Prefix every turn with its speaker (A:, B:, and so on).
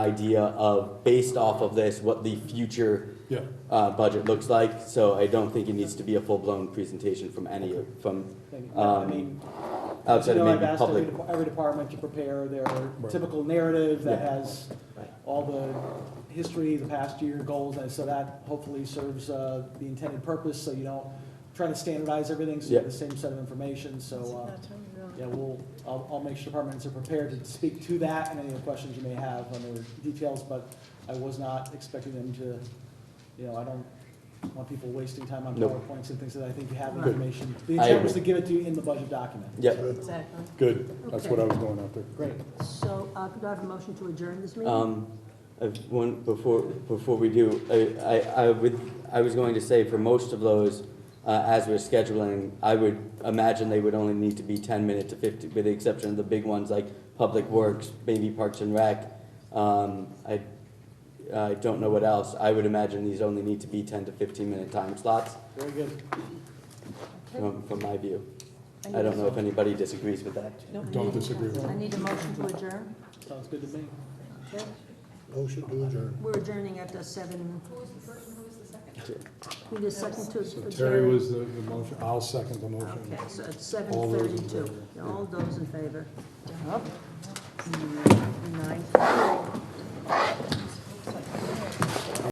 A: idea of, based off of this, what the future
B: Yeah.
A: uh, budget looks like, so I don't think it needs to be a full-blown presentation from any, of- from
C: I
A: Um,
C: mean,
A: outside
C: you
A: of
C: know, I've
A: maybe
C: asked every,
A: public.
C: dep- every department to prepare their typical narrative that
A: Yeah.
C: has all the history, the past year goals, and so that hopefully serves, uh, the intended purpose, so you don't try to standardize everything, so you have
A: Yeah.
C: the same set of information, so, uh, yeah,
D: Well,
C: we'll, I'll, I'll make sure departments are prepared to speak to that and any other questions you may have on their details, but I was not expecting them to, you know, I don't want people wasting time on
A: Nope.
C: PowerPoints and things that I think you have
D: Good.
C: information. The
A: I
C: intent was to
A: agree.
C: give it to you in the budget document.
A: Yep,
D: Exactly.
B: Good, that's what I was going after.
C: Great.
D: So, uh, could I have a motion to adjourn this meeting?
A: um, I've- one, before, before we do, I, I, I would, I was going to say for most of those, uh, as we're scheduling, I would imagine they would only need to be ten minute to fifty, with the exception of the big ones like Public Works, maybe Parks and Rec. Um, I, I don't know what else, I would imagine these only need to be ten to fifteen minute time slots,
C: Very good.
D: Okay.
A: from, from my view.
D: I
A: I
D: need
A: don't
D: a-
A: know if anybody disagrees with that.
D: No, I need-
B: Don't disagree with
D: I
B: it.
D: need a motion to adjourn.
C: Sounds good to me.
D: Okay.
B: Motion to adjourn.
D: We're adjourning at uh, seven. Who was the first and who was the second? Who second to?
B: Terry
D: adjourn?
B: was the, the motion, I'll second the motion.
D: Okay, so it's
B: All
D: seven
B: those in
D: thirty-two.
B: favor.
D: All those in favor? Up. Nine.